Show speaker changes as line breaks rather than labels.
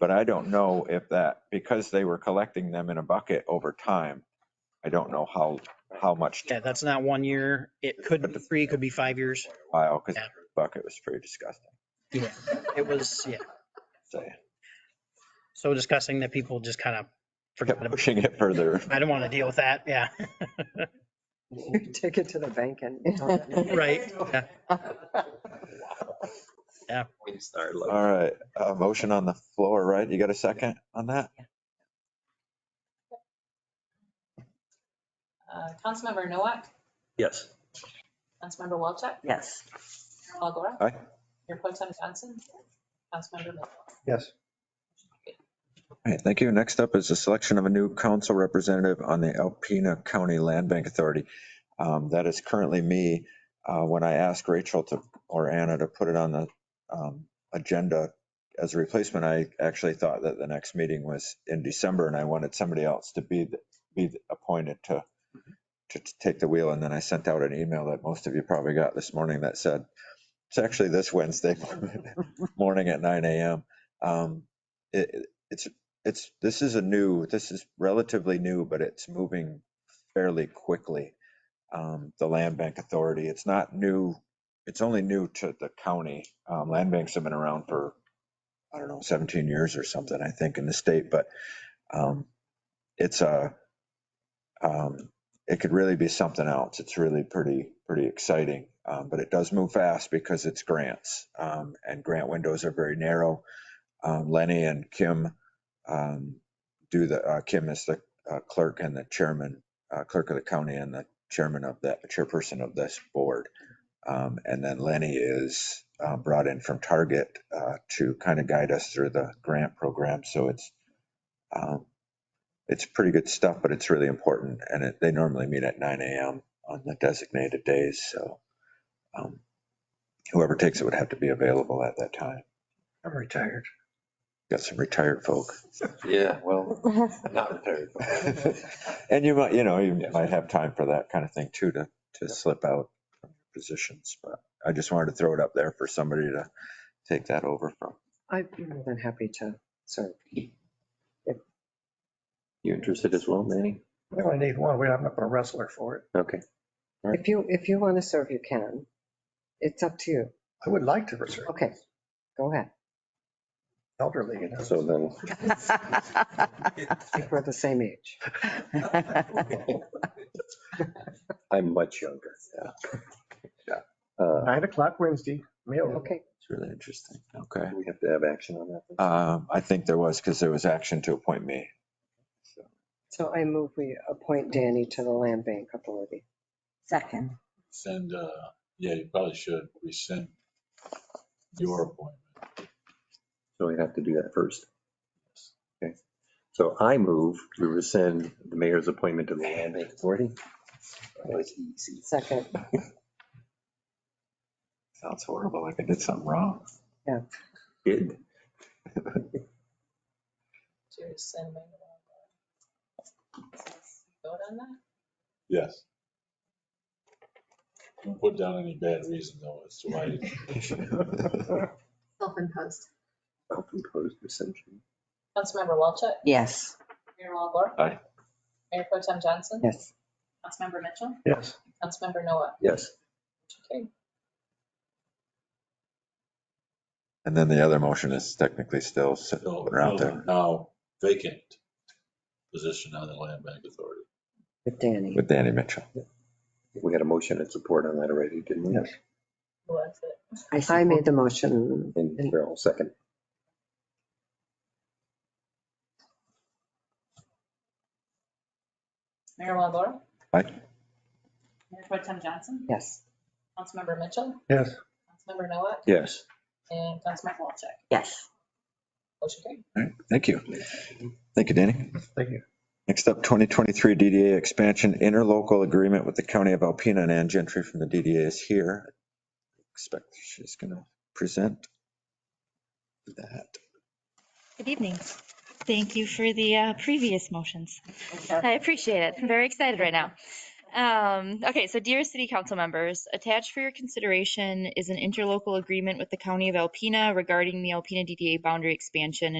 But I don't know if that, because they were collecting them in a bucket over time, I don't know how, how much
Yeah, that's not one year. It could be three, could be five years.
while, because
Yeah.
bucket was pretty disgusting,
Yeah, it was, yeah.
say.
So discussing that people just kind of forgot
Kept
about.
pushing it further.
I don't want to deal with that. Yeah,
Take it to the bank and.
right. Yeah.
We can start looking.
All right, a motion on the floor, right? You got a second on that?
Uh, Councilmember Nowak,
Yes.
Councilmember Walchuk,
Yes.
Paul Gorak.
Aye.
Mayor Pro Tem Johnson, Councilmember Mitchell.
Yes.
All right, thank you. Next up is the selection of a new council representative on the Alpena County Land Bank Authority. Um, That is currently me. Uh, When I asked Rachel to, or Anna to put it on the um, agenda as a replacement, I actually thought that the next meeting was in December and I wanted somebody else to be, the- be appointed to, to to take the wheel. And then I sent out an email that most of you probably got this morning that said, it's actually this Wednesday morning at 9 AM. Um, It, it's it's this is a new this is relatively new but it's moving fairly quickly um, the land bank authority it's not new it's only new to the county um, land banks have been around for i don't know 17 years or something i think in the state but um, it's a um, it could really be something else it's really pretty pretty exciting um, but it does move fast because it's grants um, and grant windows are very narrow um, lenny and kim um, do the, uh, Kim is the uh, clerk and the chairman, uh, clerk of the county and the chairman of that, chairperson of this board. Um, and then Lenny is, uh, brought in from Target, uh, to kind of guide us through the grant program. So it's, um, it's pretty good stuff, but it's really important. And it, they normally meet at 9 AM on the designated days. So, um, whoever takes it would have to be available at that time.
I'm retired.
Got some retired folk.
Uh, Yeah, well, I'm not retired.
And you might, you know, you
Yes.
might have time for that kind of thing too, to, to slip out from your positions. But I just wanted to throw it up there for somebody to take that over from.
I'd be more than happy to serve.
You interested as well, Manny?
We only need one. We- I'm not going to wrestle her for it.
Okay.
If you, if you want to serve, you can. It's up to you.
I would like to reserve
Okay, go ahead.
elderly, you know.
So then,
I think we're the same age.
I'm much younger.
Yeah.
Yeah. Uh,
Nine o'clock Wednesday, meal.
Okay,
It's really interesting. Okay.
do we have to have action on that.
Um, I think there was, because there was action to appoint me.
so I move we appoint Danny to the Land Bank Authority.
Second.
send, uh, yeah, you probably should rescind your appointment.
So we have to do that first. Okay. So I move to rescind the mayor's appointment to the land bank authority. That was easy.
Second,
Sounds horrible, like I did something wrong.
Did.
Cheers, send my. Vote on that?
Yes. Don't put down any bad reason though as to why you
Self-imposed.
Open closed reception.
Councilmember Walchuk,
Yes.
Mayor Walagora.
Aye.
Mayor Pro Tem Johnson.
yes.
Councilmember Mitchell,
Yes.
Councilmember Nowak.
Yes.
Okay.
And then the other motion is technically still sitting
fill-
around
fill
there
the now vacant position on the land bank authority.
With Danny.
with Danny Mitchell.
We had a motion and support on that already, didn't we?
Yes.
Who was it?
I made the motion.
And Carol, second.
Mayor Walagora.
Aye.
Mayor Pro Tem Johnson,
Yes.
Councilmember Mitchell,
Yes.
Councilmember Nowak,
Yes.
and Councilmember Walchuk.
Yes.
Motion carried.
All right, thank you. Thank you, Danny.
Thank you.
Next up, 2023 DDA expansion interlocal agreement with the county of Alpena and Ann Gentry from the DDA is here. Expect she's going to present that.
Good evening. Thank you for the uh, previous motions. I appreciate it. I'm very excited right now. Um, Okay, so dear city council members, attached for your consideration is an interlocal agreement with the county of Alpena regarding the Alpena DDA boundary expansion and